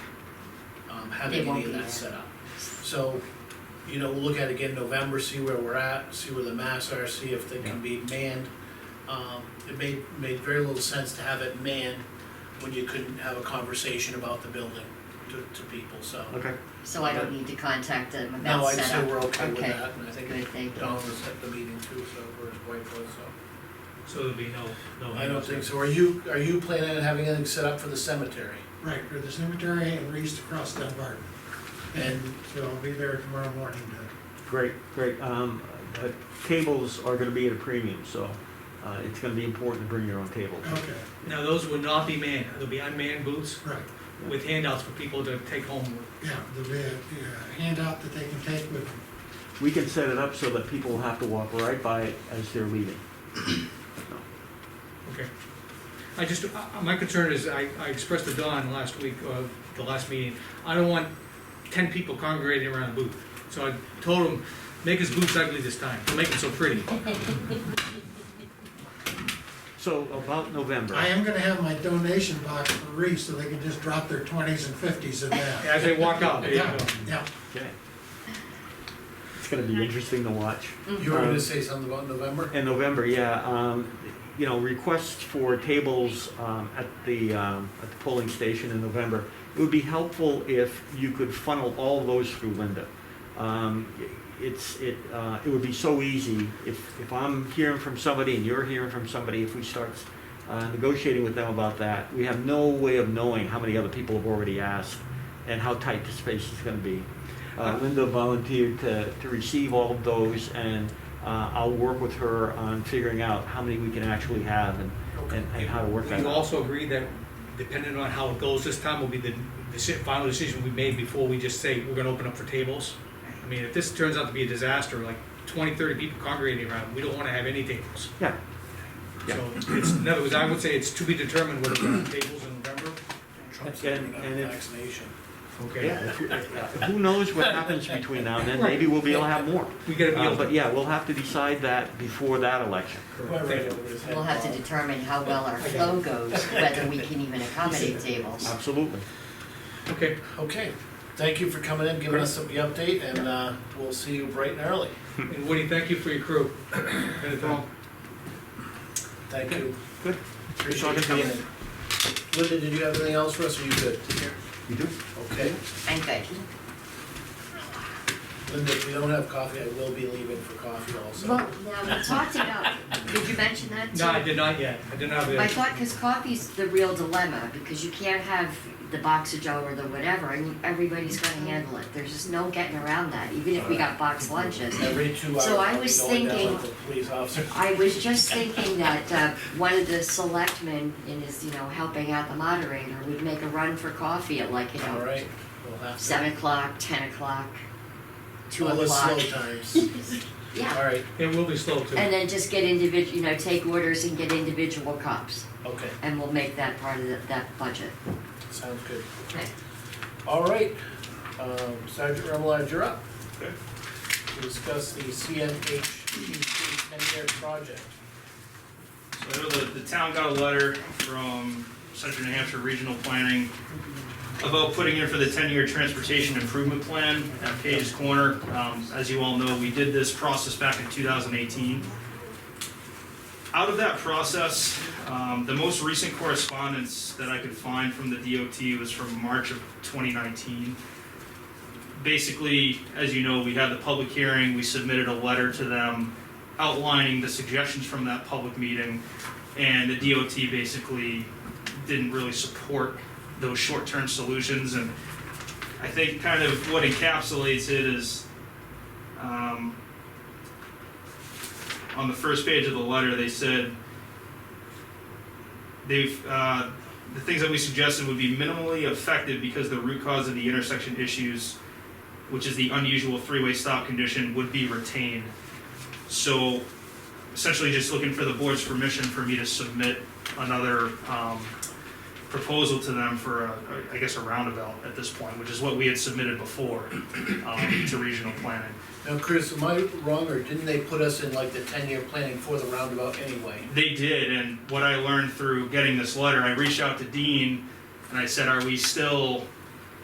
having They won't um, any of be that there. set up. So, you know, we'll look at it again November, see where we're at, see where the mass are, see if they can be manned. Um, it made, made very little sense to have it manned when you couldn't have a conversation about the building to, to people, so. Okay. So I don't need to contact them No, about I'd say setup. we're okay with Okay. that, and I Good, think thank you. Don was at the meeting too, so, or his wife was, so. So there'll be no, Oh, no. I don't think so, are you, are you planning on having anything set up for the cemetery? Right, for the cemetery and we're east across Dunbar. And So I'll be there tomorrow morning to, Great, great. Um, uh, tables are gonna be at a premium, so, uh, it's gonna be important to bring your own table. okay, Now, those would not be manned, there'll be unmanned booths right, with handouts for people to take home with. yeah, there'll be a a handout that they can take with them. We can set it up so that people have to walk right by it as they're leaving. Okay. I just, I- I- my concern is, I I expressed to Don last week, uh, the last meeting, I don't want ten people congregating around a booth. So I told him, make his booths ugly this time, don't make them so pretty. So about November. I am gonna have my donation box for Reese, so they can just drop their twenties and fifties in that. As they walk out, there you Yeah, go. yeah, Okay. It's gonna be interesting to watch. you were Um, gonna say something about November? In November, yeah, um, you know, requests for tables, um, at the, um, at the polling station in November. It would be helpful if you could funnel all those through Linda. Um, it's, it, uh, it would be so easy if, if I'm hearing from somebody and you're hearing from somebody, if we start, uh, negotiating with them about that, we have no way of knowing how many other people have already asked and how tight the space is gonna be. Uh, Linda volunteered to, to receive all of those and, uh, I'll work with her on figuring out how many we can actually have and, and, and how to work that We out. also agree that depending on how it goes this time will be the, the si- final decision we made before we just say we're gonna open up for tables. I mean, if this turns out to be a disaster, like 20, 30 people congregating around, we don't wanna have any tables. Yeah, Yeah. So it's, in other words, I would say it's to be determined whether we're gonna have tables in November. Trump's And- giving up and if- vaccination. yeah, if- if- who knows what happens between now and then, maybe we'll be able to have more. We gotta be Uh, able But to. yeah, we'll have to decide that before that election. Thank you. We'll have to determine how well our flow goes, whether we can even accommodate tables. Absolutely. Okay, Okay, thank you for coming in, giving us the update, and, uh, we'll see you bright and early. and Woody, thank you for your crew. And um, it's all- Thank you. Good. Appreciate you coming in. Linda, did you have anything else for us, or you good? You do? Okay, I'm good. Linda, if we don't have coffee, I will be leaving for coffee Well, also. now, we talked about, did you mention that too? No, I did not yet, I did not have I it. thought, because coffee's the real dilemma, because you can't have the box of Joe or the whatever, and everybody's gonna handle it. There's just no getting around that, even if we got box lunches. Every two hours, So I I'll be was going down thinking- with the police officer. I was just thinking that uh, one of the selectmen in his, you know, helping out the moderator would make a run for coffee at like, you All know, right, we'll have to. seven o'clock, ten o'clock, two All the o'clock. slow times. All Yeah, right, It will be slow too. and then just get individual, you know, take orders and get individual cups, okay, and we'll make that part of the- that budget. sounds good. Okay. All right, um, Sergeant Remillard, you're up. To discuss the CMHPC ten-year project. So I know the, the town got a letter from Central New Hampshire Regional Planning about putting in for the ten-year transportation improvement plan at Page's Corner. Um, as you all know, we did this process back in two thousand eighteen. Out of that process, um, the most recent correspondence that I could find from the DOT was from March of twenty nineteen. Basically, as you know, we had the public hearing, we submitted a letter to them outlining the suggestions from that public meeting, and the DOT basically didn't really support those short-term solutions, and I think kind of what encapsulates it is, um, on the first page of the letter, they said they've, uh, the things that we suggested would be minimally effective because the root cause of the intersection issues, which is the unusual three-way stop condition, would be retained. So essentially just looking for the board's permission for me to submit another um, proposal to them for, a- I guess, a roundabout at this point, which is what we had submitted before um, to regional planning. Now, Chris, am I wrong, or didn't they put us in like the ten-year planning for the roundabout anyway? They did, and what I learned through getting this letter, I reached out to Dean and I said, are we still